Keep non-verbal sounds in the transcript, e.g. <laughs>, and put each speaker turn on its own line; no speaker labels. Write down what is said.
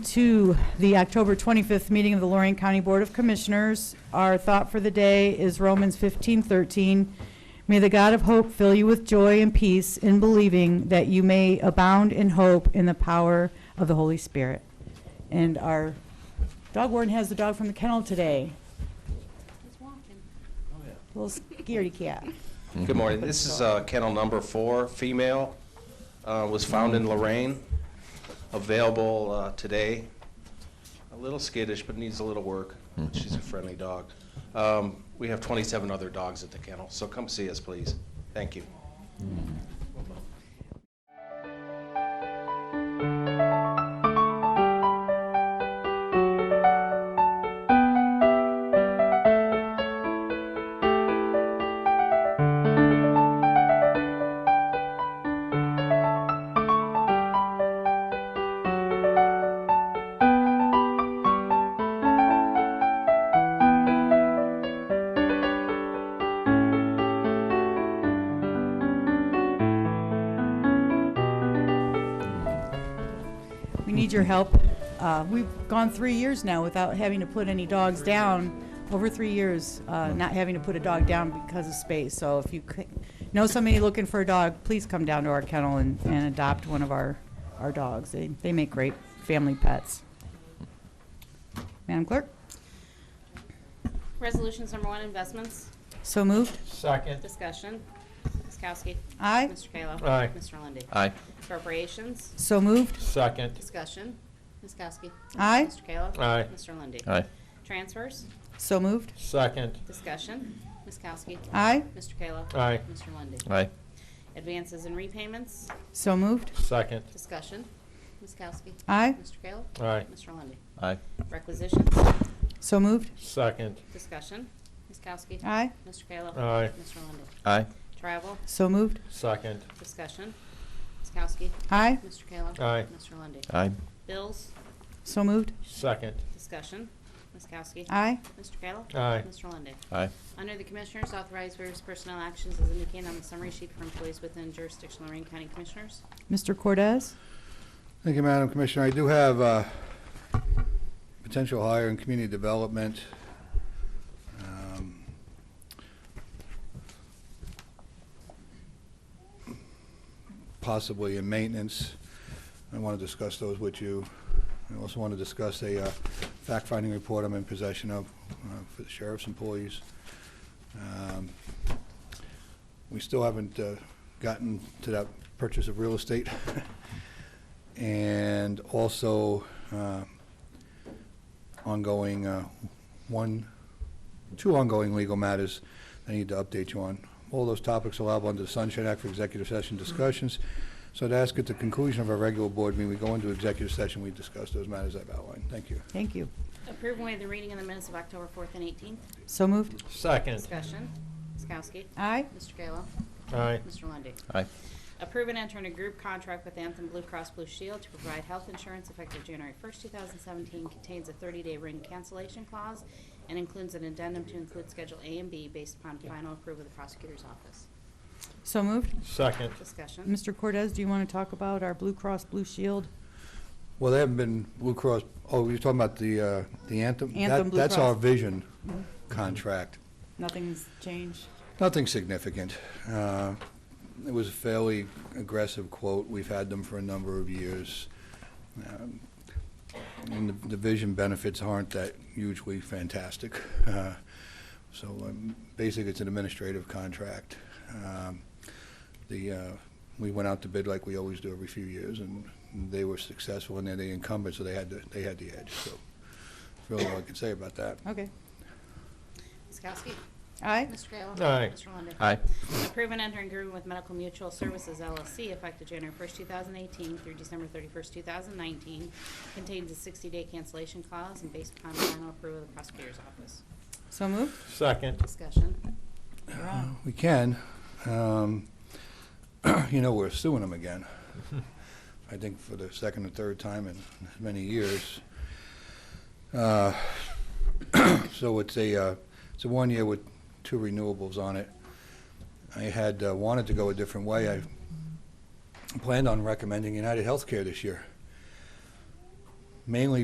to the October 25th meeting of the Lorraine County Board of Commissioners. Our thought for the day is Romans 15:13. May the God of hope fill you with joy and peace in believing that you may abound in hope in the power of the Holy Spirit. And our dog warden has the dog from the kennel today. Little scaredy cat.
Good morning. This is uh, kennel number four, female, uh, was found in Lorraine, available uh, today. A little skittish, but needs a little work.
Mm-hmm.
She's a friendly dog. Um, We have 27 other dogs at the kennel, so come see us, please. Thank you.
We need your help. Uh, We've gone three years now without having to put any dogs down, over three years, uh, not having to put a dog down because of space. So if you c- know somebody looking for a dog, please come down to our kennel and and adopt one of our, our dogs. They They make great family pets. Madam Clerk?
Resolutions number one, investments,
So moved?
Second.
discussion. Ms. Kowski.
Aye.
Mr. Kayla.
Aye.
Mr. Lundey.
Aye.
Appropriations,
So moved?
Second.
discussion. Ms. Kowski.
Aye.
Mr. Kayla.
Aye.
Mr. Lundey.
Aye.
Transfers,
So moved?
Second.
discussion. Ms. Kowski.
Aye.
Mr. Kayla.
Aye.
Mr. Lundey.
Aye.
Advances and repayments,
So moved?
Second.
discussion. Ms. Kowski.
Aye.
Mr. Kayla.
Aye.
Mr. Lundey.
Aye.
Requisitions,
So moved?
Second.
discussion. Ms. Kowski.
Aye.
Mr. Kayla.
Aye.
Mr. Lundey.
Aye.
Travel,
So moved?
Second.
discussion. Ms. Kowski.
Aye.
Mr. Kayla.
Aye.
Mr. Lundey.
Aye.
Bills,
So moved?
Second.
discussion. Ms. Kowski.
Aye.
Mr. Kayla.
Aye.
Mr. Lundey.
Aye.
Under the Commissioners, authorize various personnel actions as indicated on the summary sheet for employees within jurisdiction of Lorraine County Commissioners.
Mr. Cordez?
Thank you, Madam Commissioner. I do have a potential hire in community development. Um, Possibly in maintenance. I want to discuss those with you. I also want to discuss a uh, fact-finding report I'm in possession of uh, for the sheriff's employees. Um, We still haven't uh, gotten to that purchase of real estate. <laughs> and also uh, ongoing, uh, one, two ongoing legal matters I need to update you on. All those topics allowable under the Sunshine Act for executive session discussions. So to ask at the conclusion of our regular board meeting, we go into executive session, we discuss those matters I've outlined. Thank you.
Thank you.
Approve and waive the reading of the minutes of October 4th and 18th.
So moved?
Second.
Discussion. Ms. Kowski.
Aye.
Mr. Kayla.
Aye.
Mr. Lundey.
Aye.
Approve and enter in a group contract with Anthem Blue Cross Blue Shield to provide health insurance effective January 1st, 2017. Contains a 30-day ring cancellation clause and includes an addendum to include Schedule A and B based upon final approval of the prosecutor's office.
So moved?
Second.
Discussion.
Mr. Cortez, do you want to talk about our Blue Cross Blue Shield?
Well, they haven't been Blue Cross, oh, you're talking about the, uh, the Anthem?
Anthem
That-
Blue
That's
Cross. Mm-hmm.
our vision contract.
Nothing's changed.
Nothing significant. Uh, It was a fairly aggressive quote. We've had them for a number of years. Um, And the division benefits aren't that hugely fantastic. Uh, So um, basically, it's an administrative contract. Um, The, uh, we went out to bid like we always do every few years, and they were successful, and they're the incumbent, so they had, the- they had the edge. So that's really all I can say about that.
Okay.
Ms. Kowski.
Aye.
Mr. Kayla.
Aye.
Mr. Lundey.
Aye.
Approve and enter in agreement with Medical Mutual Services LLC effective January 1st, 2018 through December 31st, 2019. Contains a 60-day cancellation clause and based upon final approval of the prosecutor's office.
So moved?
Second.
Discussion.
You're on.
We can. Um, <clears throat> You know, we're suing them again, I think for the second or third time in as many years. Uh, <clears throat> So it's a, uh, it's a one-year with two renewables on it. I had uh, wanted to go a different way. I planned on recommending United Healthcare this year. mainly